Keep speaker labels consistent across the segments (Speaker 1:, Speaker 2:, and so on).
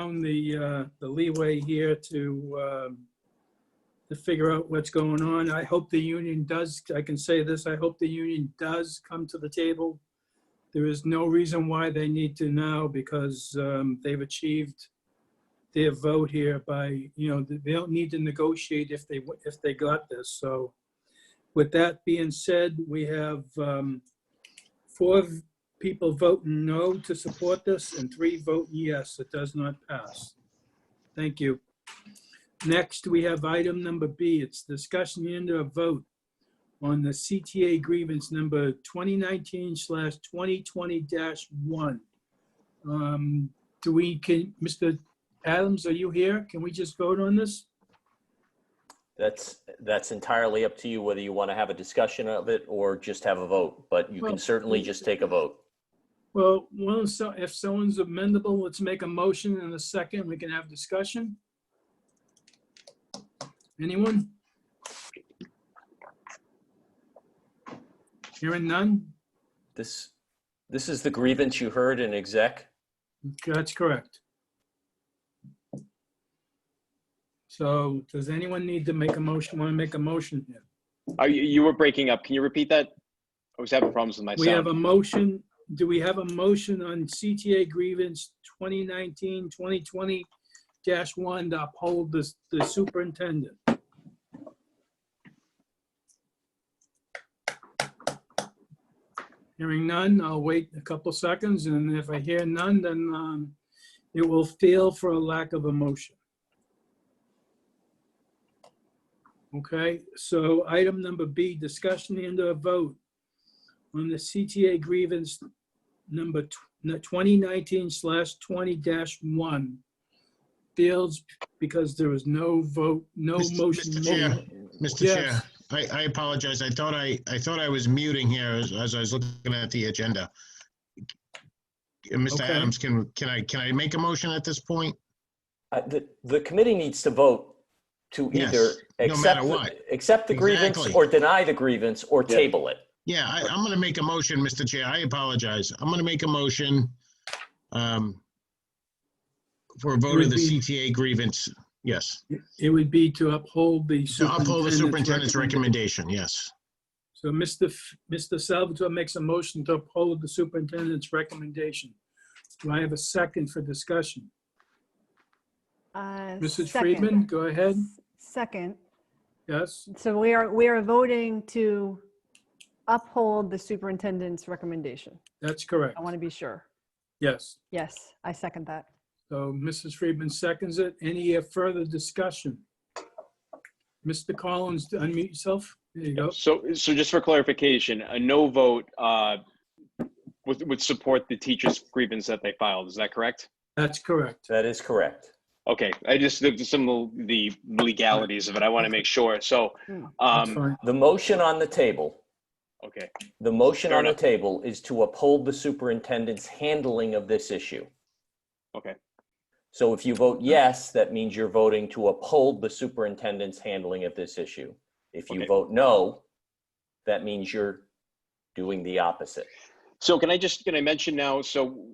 Speaker 1: down the, uh, the leeway here to, um, to figure out what's going on. I hope the union does, I can say this, I hope the union does come to the table. There is no reason why they need to now because um, they've achieved their vote here by, you know, they don't need to negotiate if they, if they got this. So with that being said, we have um, four people voting no to support this and three vote yes, it does not pass. Thank you. Next, we have item number B. It's discussion and a vote on the CTA grievance number 2019 slash 2020 dash one. Um, Do we, can, Mr. Adams, are you here? Can we just vote on this?
Speaker 2: That's, that's entirely up to you whether you want to have a discussion of it or just have a vote, but you
Speaker 1: Well-
Speaker 2: can certainly just take a vote.
Speaker 1: Well, well, so if someone's amendable, let's make a motion in a second. We can have discussion. Anyone? Hearing none?
Speaker 2: This, this is the grievance you heard in exec.
Speaker 1: That's correct. So does anyone need to make a motion, want to make a motion here?
Speaker 3: Are you, you were breaking up. Can you repeat that? I was having problems with my
Speaker 1: We have
Speaker 3: sound.
Speaker 1: a motion, do we have a motion on CTA grievance 2019, 2020 dash one to uphold the, the superintendent? Hearing none, I'll wait a couple seconds, and if I hear none, then um, it will fail for a lack of a motion. Okay, so item number B, discussion and a vote on the CTA grievance number tw- no, 2019 slash 20 dash one. Fields, because there was no vote, no
Speaker 4: Mr.
Speaker 1: motion. made.
Speaker 4: Mr. Chair, Mr.
Speaker 1: Yes.
Speaker 4: Chair, I, I apologize. I thought I, I thought I was muting here as, as I was looking at the agenda. Uh, Mr.
Speaker 1: Okay.
Speaker 4: Adams, can, can I, can I make a motion at this point?
Speaker 2: Uh, The, the committee needs to vote to
Speaker 4: Yes,
Speaker 2: either
Speaker 4: no
Speaker 2: accept,
Speaker 4: matter
Speaker 2: the-
Speaker 4: what.
Speaker 2: accept the grievance
Speaker 4: Exactly.
Speaker 2: or deny the grievance or
Speaker 3: Yeah.
Speaker 2: table it.
Speaker 4: Yeah, I, I'm going to make a motion, Mr. Chair. I apologize. I'm going to make a motion um, for a vote of the
Speaker 1: Repeat.
Speaker 4: CTA grievance. Yes,
Speaker 1: It would be to uphold the
Speaker 4: to uphold the
Speaker 1: superintendent's.
Speaker 4: superintendent's
Speaker 1: recommendation.
Speaker 4: recommendation. Yes,
Speaker 1: So Mr. F- Mr. Salvatore makes a motion to uphold the superintendent's recommendation. Do I have a second for discussion?
Speaker 5: Uh,
Speaker 1: Mrs.
Speaker 5: second.
Speaker 1: Friedman, go ahead.
Speaker 5: S- Second.
Speaker 1: Yes,
Speaker 5: So we are, we are voting to uphold the superintendent's recommendation.
Speaker 1: that's correct.
Speaker 5: I want to be sure.
Speaker 1: Yes.
Speaker 5: Yes, I second that.
Speaker 1: So Mrs. Friedman seconds it. Any uh, further discussion? Mr. Collins, unmute yourself. There you go.
Speaker 3: So, so just for clarification, a no vote uh, would, would support the teacher's grievance that they filed. Is that correct?
Speaker 1: That's correct.
Speaker 2: That is correct.
Speaker 3: Okay, I just looked at some of the legalities of it. I want to make sure. So,
Speaker 5: Hmm.
Speaker 1: That's
Speaker 3: um,
Speaker 1: fine.
Speaker 2: The motion on the table,
Speaker 3: okay,
Speaker 2: the motion
Speaker 3: Fair
Speaker 2: on the
Speaker 3: enough.
Speaker 2: table is to uphold the superintendent's handling of this issue.
Speaker 3: okay,
Speaker 2: So if you vote yes, that means you're voting to uphold the superintendent's handling of this issue. If you
Speaker 3: Okay.
Speaker 2: vote no, that means you're doing the opposite.
Speaker 3: So can I just, can I mention now, so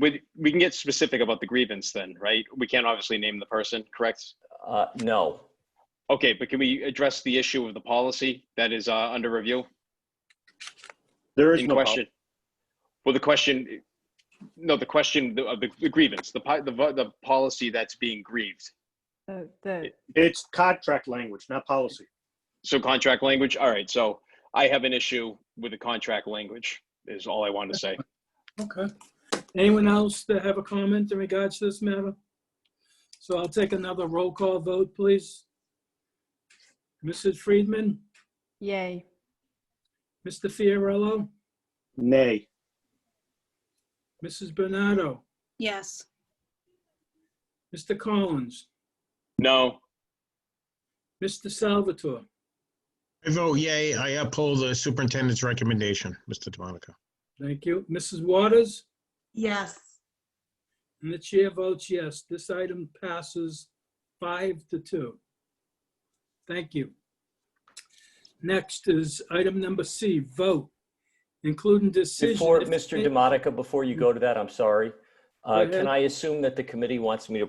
Speaker 3: we, we can get specific about the grievance then, right? We can't obviously name the person, correct?
Speaker 2: Uh, No,
Speaker 3: Okay, but can we address the issue of the policy that is uh, under review?
Speaker 6: There is
Speaker 3: in
Speaker 6: no
Speaker 3: question. Well, the question, no, the question of the, the grievance, the, po- the vo- the policy that's being grieved.
Speaker 5: The, the,
Speaker 6: problem. It's contract language, not policy.
Speaker 3: So contract language. All right. So I have an issue with the contract language. Is all I wanted to say.
Speaker 1: Okay. Anyone else that have a comment in regards to this matter? So I'll take another roll call vote, please. Mrs. Friedman,
Speaker 5: yay.
Speaker 1: Mr. Fiorello,
Speaker 6: Nay.
Speaker 1: Mrs. Bernardo,
Speaker 7: Yes,
Speaker 1: Mr. Collins,
Speaker 3: No.
Speaker 1: Mr. Salvatore,
Speaker 4: I vote yay. I uphold the superintendent's recommendation, Mr. DeMonica.
Speaker 1: thank you, Mrs. Waters,
Speaker 7: yes,
Speaker 1: and the chair votes yes. This item passes five to two. Thank you. Next is item number C, vote, including decision.
Speaker 2: Before,
Speaker 1: if-
Speaker 2: Mr. Demotica, before you go to that, I'm sorry. Um, Uh,
Speaker 1: Go
Speaker 2: Can
Speaker 1: ahead.
Speaker 2: I assume that the committee wants me to